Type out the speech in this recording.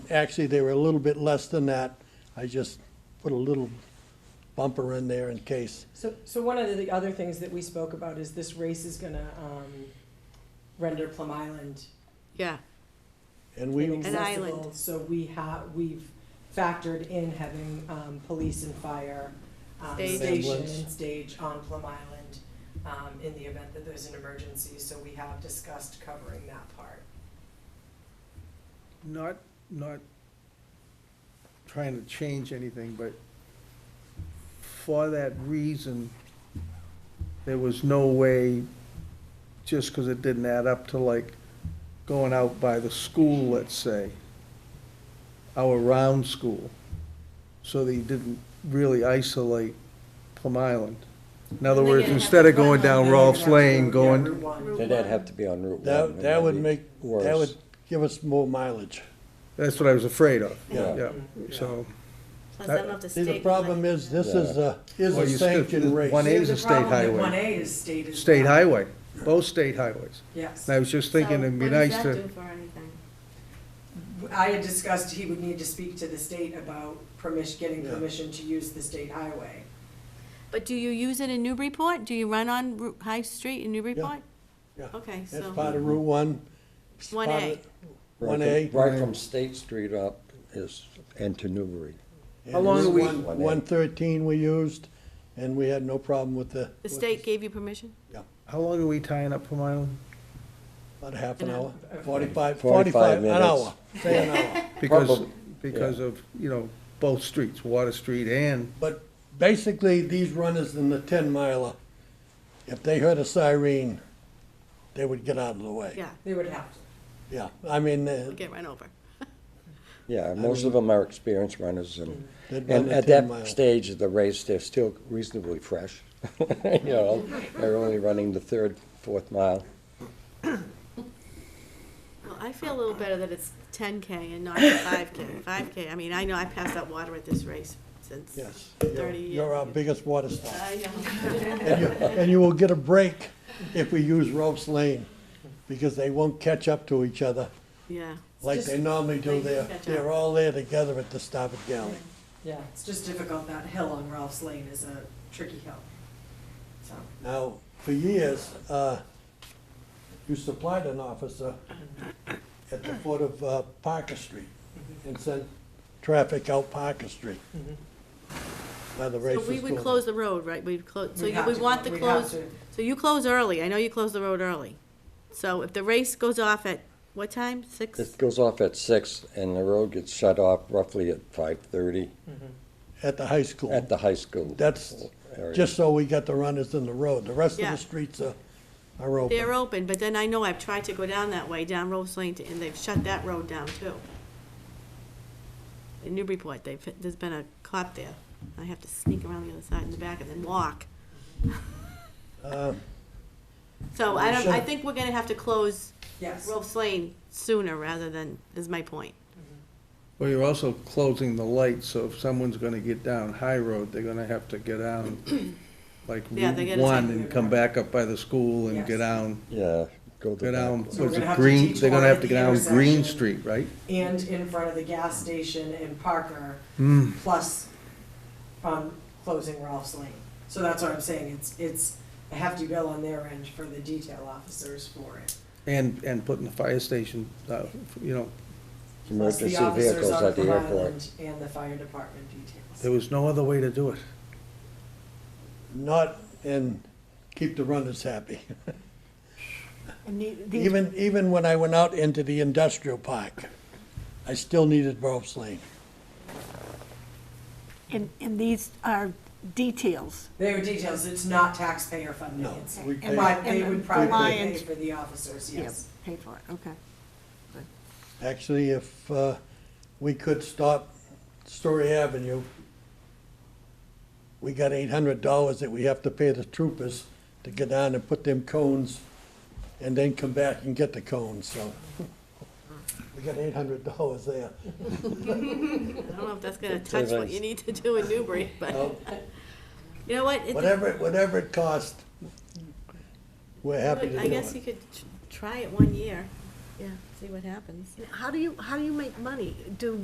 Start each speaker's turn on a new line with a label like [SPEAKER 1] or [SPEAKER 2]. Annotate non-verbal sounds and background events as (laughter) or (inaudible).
[SPEAKER 1] actually, they were a little bit less than that. I just put a little bumper in there in case.
[SPEAKER 2] So, so one of the other things that we spoke about is this race is gonna, um, render Plum Island
[SPEAKER 3] Yeah,
[SPEAKER 1] And we,
[SPEAKER 2] inaccessible.
[SPEAKER 3] island.
[SPEAKER 2] So we have, we've factored in having, um, police and fire, um,
[SPEAKER 3] Stage.
[SPEAKER 2] station
[SPEAKER 1] Ambulance.
[SPEAKER 2] and stage on Plum Island, um, in the event that there's an emergency, so we have discussed covering that part.
[SPEAKER 4] Not, not trying to change anything, but for that reason, there was no way, just because it didn't add up to like going out by the school, let's say, our round school, so that you didn't really isolate Plum Island. In other
[SPEAKER 2] And
[SPEAKER 4] words,
[SPEAKER 2] again,
[SPEAKER 4] instead of
[SPEAKER 2] Plum
[SPEAKER 4] going down
[SPEAKER 2] Island,
[SPEAKER 4] Rolfs Lane,
[SPEAKER 2] yeah,
[SPEAKER 4] going,
[SPEAKER 2] Route one.
[SPEAKER 5] Did that have to be on Route One?
[SPEAKER 1] that,
[SPEAKER 5] wouldn't
[SPEAKER 1] that would
[SPEAKER 5] be
[SPEAKER 1] make, that
[SPEAKER 5] worse?
[SPEAKER 1] would give us more mileage.
[SPEAKER 4] that's what I was afraid of,
[SPEAKER 1] Yeah.
[SPEAKER 4] yeah, so.
[SPEAKER 3] plus I love the
[SPEAKER 1] See,
[SPEAKER 3] state.
[SPEAKER 1] the problem
[SPEAKER 3] money.
[SPEAKER 1] is, this is a, is
[SPEAKER 4] Well,
[SPEAKER 1] a
[SPEAKER 4] you still-
[SPEAKER 1] sanctioned
[SPEAKER 4] one
[SPEAKER 1] race.
[SPEAKER 4] eight-
[SPEAKER 2] See,
[SPEAKER 4] is
[SPEAKER 2] the
[SPEAKER 4] a state
[SPEAKER 2] problem with
[SPEAKER 4] highway.
[SPEAKER 2] One A is state as
[SPEAKER 4] State
[SPEAKER 2] well.
[SPEAKER 4] highway, both state highways.
[SPEAKER 2] Yes.
[SPEAKER 4] And I was just thinking
[SPEAKER 3] So
[SPEAKER 4] it'd be
[SPEAKER 3] what does
[SPEAKER 4] nice
[SPEAKER 3] that
[SPEAKER 4] to,
[SPEAKER 3] do for anything?
[SPEAKER 2] I had discussed he would need to speak to the state about permission, getting
[SPEAKER 1] Yeah.
[SPEAKER 2] permission to use the state highway.
[SPEAKER 3] But do you use it in Newburyport? Do you run on Ru- High Street in Newburyport?
[SPEAKER 1] Yeah.
[SPEAKER 3] Okay,
[SPEAKER 1] That's
[SPEAKER 3] so.
[SPEAKER 1] part of Route One. It's
[SPEAKER 3] One
[SPEAKER 1] part
[SPEAKER 3] A.
[SPEAKER 1] of-
[SPEAKER 5] Right
[SPEAKER 1] One
[SPEAKER 5] from-
[SPEAKER 1] A.
[SPEAKER 5] Right from State Street up is, and to Newbury.
[SPEAKER 1] and
[SPEAKER 4] How long
[SPEAKER 1] Route
[SPEAKER 4] are we-
[SPEAKER 1] one-
[SPEAKER 5] 1A.
[SPEAKER 1] 113 we used, and we had no problem with the.
[SPEAKER 3] The state gave you permission?
[SPEAKER 4] how long are we tying up Plum Island?
[SPEAKER 1] About half an
[SPEAKER 3] An
[SPEAKER 1] hour, 45,
[SPEAKER 5] 45
[SPEAKER 1] 45, an
[SPEAKER 5] minutes.
[SPEAKER 1] hour, say an hour.
[SPEAKER 4] Because,
[SPEAKER 5] Probably,
[SPEAKER 4] because of, you know, both streets, Water Street and,
[SPEAKER 1] But basically, these runners in the 10 miler, if they heard a siren, they would get out of the way.
[SPEAKER 3] Yeah,
[SPEAKER 2] They would have to.
[SPEAKER 1] Yeah, I mean, uh,
[SPEAKER 3] we'll get run over.
[SPEAKER 5] Yeah, most of them are experienced runners and,
[SPEAKER 1] they'd run
[SPEAKER 5] and
[SPEAKER 1] the
[SPEAKER 5] at
[SPEAKER 1] 10
[SPEAKER 5] that
[SPEAKER 1] miler.
[SPEAKER 5] stage of the race, they're still reasonably fresh. (laughs) You know, they're only running the third, fourth mile.
[SPEAKER 3] Well, I feel a little better that it's ten K and not five K. Five K, I mean, I know I passed out water at this race since
[SPEAKER 1] Yes, you're-
[SPEAKER 3] thirty years.
[SPEAKER 1] you're our
[SPEAKER 3] ago.
[SPEAKER 1] biggest water stop.
[SPEAKER 3] I know.
[SPEAKER 1] And you, and you will get a break if we use Rope's Lane, because they won't catch up to each other
[SPEAKER 3] (laughs) Yeah,
[SPEAKER 1] like
[SPEAKER 2] just-
[SPEAKER 1] they normally do.
[SPEAKER 3] They
[SPEAKER 1] They're,
[SPEAKER 3] catch up.
[SPEAKER 1] they're all there together at the Stafford Galley.
[SPEAKER 2] Yeah, it's just difficult. That hill on Ralph's Lane is a tricky hill. So,
[SPEAKER 1] Now, for years, uh, you supplied an officer at the foot of uh, Parker Street and sent traffic out Parker Street by the race
[SPEAKER 3] so
[SPEAKER 1] was
[SPEAKER 3] we would
[SPEAKER 1] going.
[SPEAKER 3] close the road, right? We'd close, so
[SPEAKER 2] We'd
[SPEAKER 3] you
[SPEAKER 2] have
[SPEAKER 3] would
[SPEAKER 2] to
[SPEAKER 3] want
[SPEAKER 2] clo-
[SPEAKER 3] the
[SPEAKER 2] we'd have
[SPEAKER 3] close,
[SPEAKER 2] to.
[SPEAKER 3] so you close early. I know you close the road early. So if the race goes off at what time? Six?
[SPEAKER 5] It goes off at six and the road gets shut off roughly at five-thirty
[SPEAKER 1] At the high school.
[SPEAKER 5] at the high school.
[SPEAKER 1] That's
[SPEAKER 5] area.
[SPEAKER 1] just so we got the runners in the road. The rest of
[SPEAKER 3] Yeah.
[SPEAKER 1] the streets are, are open.
[SPEAKER 3] They're open, but then I know I've tried to go down that way, down Rose Lane, to- and they've shut that road down too. In Newburyport, they've, there's been a cop there. I have to sneak around the other side in the back and then walk.
[SPEAKER 1] Uh,
[SPEAKER 3] So I don't, I
[SPEAKER 1] Sure.
[SPEAKER 3] think we're gonna have to close
[SPEAKER 2] yes.
[SPEAKER 3] Rose Lane sooner rather than, is my point.
[SPEAKER 4] well, you're also closing the lights, so if someone's gonna get down High Road, they're gonna have to get down
[SPEAKER 2] (clears throat)
[SPEAKER 4] like
[SPEAKER 3] Yeah, they
[SPEAKER 4] Route
[SPEAKER 3] gotta
[SPEAKER 4] One
[SPEAKER 3] take-
[SPEAKER 4] and come back up by the school and
[SPEAKER 2] Yes.
[SPEAKER 4] get down,
[SPEAKER 5] Yeah, go to
[SPEAKER 4] go down,
[SPEAKER 5] that.
[SPEAKER 2] So we're
[SPEAKER 4] what's
[SPEAKER 2] gonna
[SPEAKER 4] it,
[SPEAKER 2] have to
[SPEAKER 4] Green,
[SPEAKER 2] teach
[SPEAKER 4] they're gonna
[SPEAKER 2] one
[SPEAKER 4] have
[SPEAKER 2] at
[SPEAKER 4] to
[SPEAKER 2] the
[SPEAKER 4] get down Green
[SPEAKER 2] intersection.
[SPEAKER 4] Street, right?
[SPEAKER 2] And in front of the gas station in Parker,
[SPEAKER 5] Mm.
[SPEAKER 4] Hmm,
[SPEAKER 2] plus, um, closing Ralph's Lane. So that's what I'm saying. It's, it's a hefty bill on their end for the detail officers for it.
[SPEAKER 4] and, and putting the fire station, uh, you know,
[SPEAKER 2] Plus the
[SPEAKER 5] Emergency
[SPEAKER 2] officers
[SPEAKER 5] vehicles
[SPEAKER 2] on
[SPEAKER 5] at the
[SPEAKER 2] Plum
[SPEAKER 5] airport.
[SPEAKER 2] Island And the fire department details.
[SPEAKER 4] there was no other way to do it.
[SPEAKER 1] Not, and keep the runners happy.
[SPEAKER 3] (laughs)
[SPEAKER 6] And the- these-
[SPEAKER 1] Even, even when I went out into the industrial park, I still needed Rope's Lane.
[SPEAKER 6] and, and these are details.
[SPEAKER 2] They were details, it's not taxpayer funding,
[SPEAKER 1] No,
[SPEAKER 2] it's,
[SPEAKER 1] we pay-
[SPEAKER 2] but they would probably pay
[SPEAKER 6] Compliant.
[SPEAKER 2] for the officers,
[SPEAKER 6] Yeah,
[SPEAKER 2] yes.
[SPEAKER 6] Pay for it, okay.
[SPEAKER 1] Actually, if uh, we could stop Story Avenue, we got eight hundred dollars that we have to pay the troopers to get down and put them cones and then come back and get the cones, so. We got eight hundred dollars there.
[SPEAKER 3] I don't know if that's gonna
[SPEAKER 5] Good
[SPEAKER 3] touch what
[SPEAKER 5] savings.
[SPEAKER 3] you need to do in Newbury, but,
[SPEAKER 1] So,
[SPEAKER 3] (laughs) you know what? It-
[SPEAKER 1] Whatever, whatever it costs, we're happy to
[SPEAKER 3] I
[SPEAKER 1] do
[SPEAKER 3] guess
[SPEAKER 1] it.
[SPEAKER 3] you could tr- try it one year, yeah, see what happens.
[SPEAKER 6] How do you, how do you make money? Do